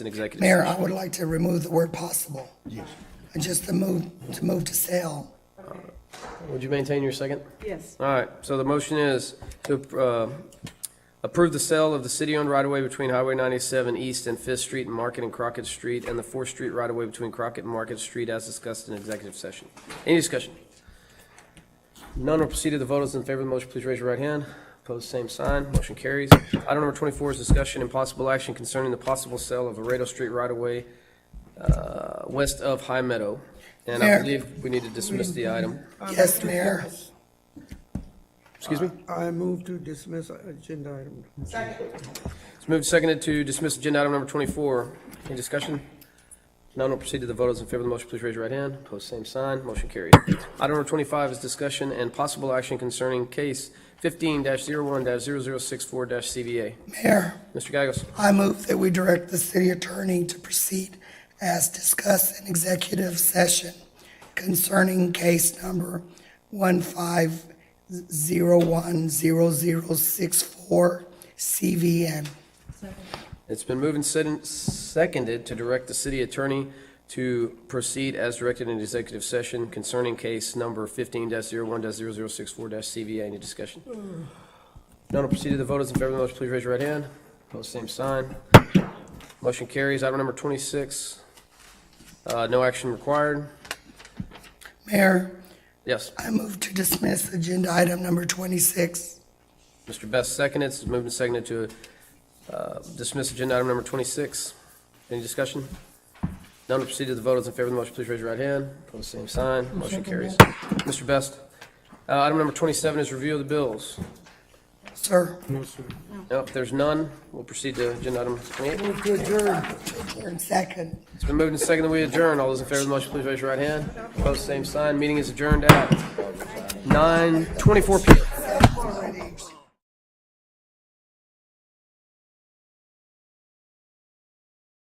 an executive. Mayor, I would like to remove the word possible. Yes. Just to move, to move to sale. Would you maintain your second? Yes. All right, so the motion is to uh, approve the sale of the city-owned right-of-way between Highway 97 East and Fifth Street and Market and Crockett Street, and the Fourth Street right-of-way between Crockett and Market Street as discussed in executive session. Any discussion? None will proceed to the vote. Those in favor of the motion, please raise your right hand. Opposed, same sign. Motion carries. Item number 24 is discussion and possible action concerning the possible sale of Laredo Street right-of-way uh, west of High Meadow. And I Mayor. believe we need to dismiss the item. Uh, Yes, Mayor. Excuse me? I move to dismiss agenda item. It's moved and seconded to dismiss agenda item number 24. Any discussion? None will proceed to the vote. Those in favor of the motion, please raise your right hand. Opposed, same sign. Motion carried. Item number 25 is discussion and possible action concerning case 15-01-0064-CVA. Mayor, Mr. Gagos, I move that we direct the city attorney to proceed as discussed in executive session concerning case number one five zero one zero zero six four CVN. it's been moved and sed- seconded to direct the city attorney to proceed as directed in executive session concerning case number 15-01-0064-CVA. Any discussion? None will proceed to the vote. Those in favor of the motion, please raise your right hand. Opposed, same sign. Motion carries. Item number 26, uh, no action required. Mayor, Yes, I move to dismiss agenda item number twenty-six. Mr. Best seconded, it's moved and seconded to uh, dismiss agenda item number 26. Any discussion? None will proceed to the vote. Those in favor of the motion, please raise your right hand. Opposed, same sign. Motion carries. Mr. Best, uh, item number 27 is review of the bills. Sir, Nope, there's none. We'll proceed to agenda item 28. Move to adjourn. turn second. It's been moved and seconded, we adjourn. All those in favor of the motion, please raise your right hand. Opposed, same sign. Meeting is adjourned at 9:24 PM.